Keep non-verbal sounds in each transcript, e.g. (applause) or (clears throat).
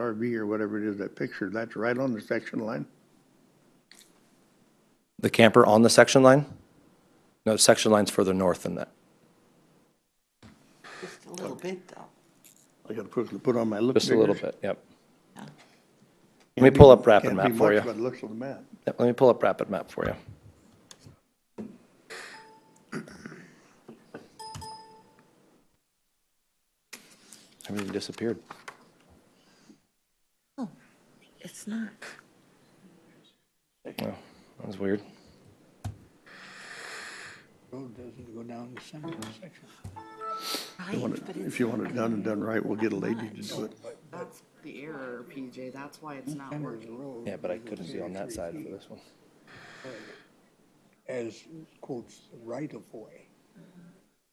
RV or whatever it is, that picture, that's right on the section line? The camper on the section line? No, section line's further north than that. Just a little bit, though. I gotta put, put on my look. Just a little figures. bit, yep. Yeah. Let me pull up Can't rapid be map much for you. by the looks of the map. Yep, Let me pull up rapid map for you. (clears throat) Everything disappeared. Oh, It's not. Oh, that was weird. Road doesn't go down the center Mm-hmm. section. You want it- If you want it done and done right, we'll get a lady to do it. That's the error, PJ, that's why it's not Center of working. the road. Yeah, but I couldn't see on that side for this one. As quotes, right of way.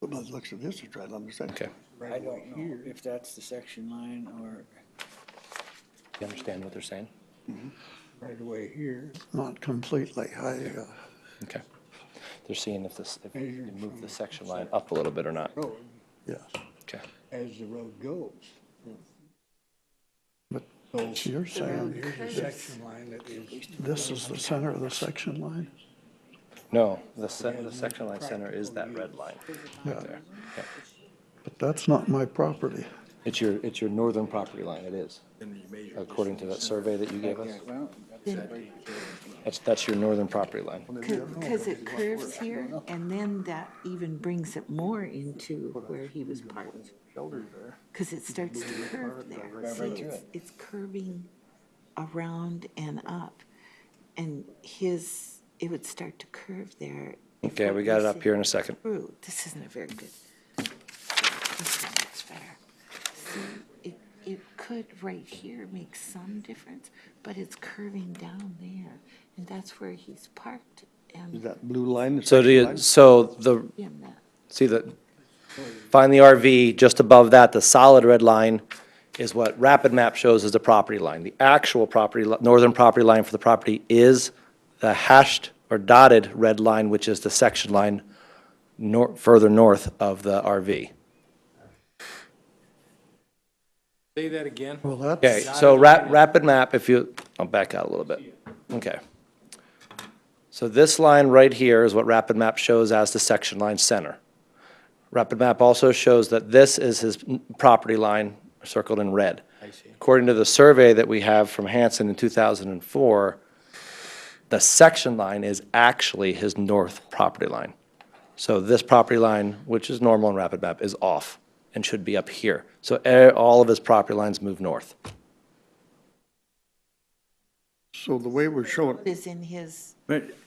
But by the looks of this, it's right on the Okay. section. I don't know if that's the section line or, You understand what they're saying? Right away here, Not completely, I, uh. Okay. They're seeing if this, if you Measured move from the section line up a little bit or not. road, Yes, Okay. as the road goes. But So You're saying here's a section line that is, this is the center of the section line? No, the, se- the section line center is that red line. Yeah, there. but that's not my property. It's your, it's your northern property line, it is. According to that survey that you gave us. well, That's, that's your northern property line. Because it curves here, and then that even brings it more into where he was parked. Because it starts to curve there. See, it's, it's curving around and up. And his, it would start to curve there. if Okay, what we got it you're up here in a saying second. is true. This isn't a very good. This is much better. See, it, it could right here make some difference, but it's curving down there. And that's where he's parked is and that blue line? the So do section you, line? so the, him that. see the, find the RV, just above that, the solid red line is what Rapid Map shows as the property line. The actual property, li- northern property line for the property is the hashed or dotted red line, which is the section line nor, further north of the RV. Say that again. Well, that's, Okay, so ra- rapid map, if you, I'll back out a little bit. Okay. So this line right here is what rapid map shows as the section line center. Rapid map also shows that this is his n- property line circled in red. I see. According to the survey that we have from Hanson in 2004, the section line is actually his north property line. So this property line, which is normal in Rapid Map, is off and should be up here. So eh, all of his property lines move north. So the way we're showing, Is in his, but it-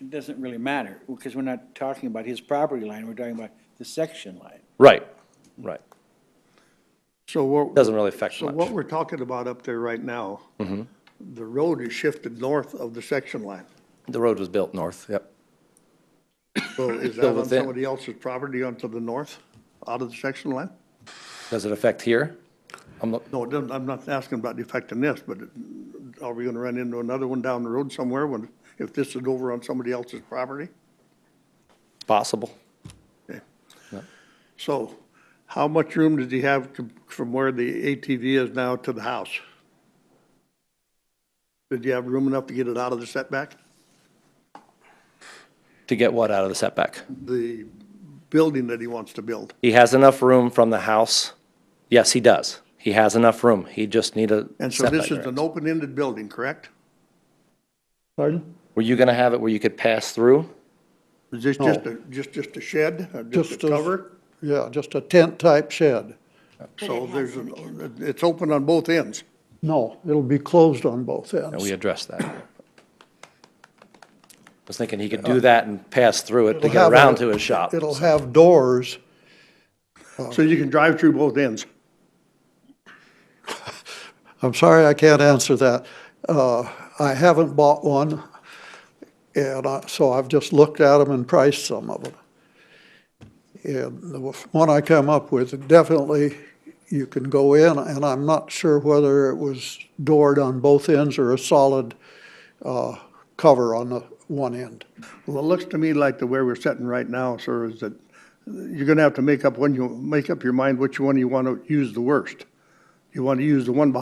it doesn't really matter, because we're not talking about his property line, we're talking about the section line. Right, right. so what? Doesn't really affect So what much. Mm-hmm. we're talking about up there right now, the road is shifted north of the section line. The road was built north, yep. So is Still that on within- somebody else's property onto the north, out of the section line? Does it affect here? I'm look- No, it doesn't, I'm not asking about the effect on this, but are we gonna run into another one down the road somewhere when, if this is over on somebody else's property? Possible. Okay. No. So how much room does he have to- from where the ATV is now to the house? Did you have room enough to get it out of the setback? To get what out of the setback? The building that he wants to build? He has enough room from the house? Yes, he does. He has enough room. He just need a And so setback this is an variance. open-ended building, correct? pardon? Were you gonna have it where you could pass through? Is this just a, just, just a shed, or just Just a a- cover? Yeah, just a tent-type shed. but it So there's, has an end. an- uh, it's open on both ends. No, it'll be closed on both And ends. we (coughs) addressed that. I was thinking he could do that and pass through it to It'll get have around a- to his shop. It'll have doors. So you can drive through both ends. I'm sorry I can't answer that. Uh, I haven't bought one, and I- so I've just looked at them and priced some of them. And the one I come up with, definitely you can go in, and I'm not sure whether it was doored on both ends or a solid uh, cover on the one end. Well, it looks to me like the way we're sitting right now, sir, is that you're gonna have to make up when you, make up your mind which one you wanna use the worst. You wanna use the one behind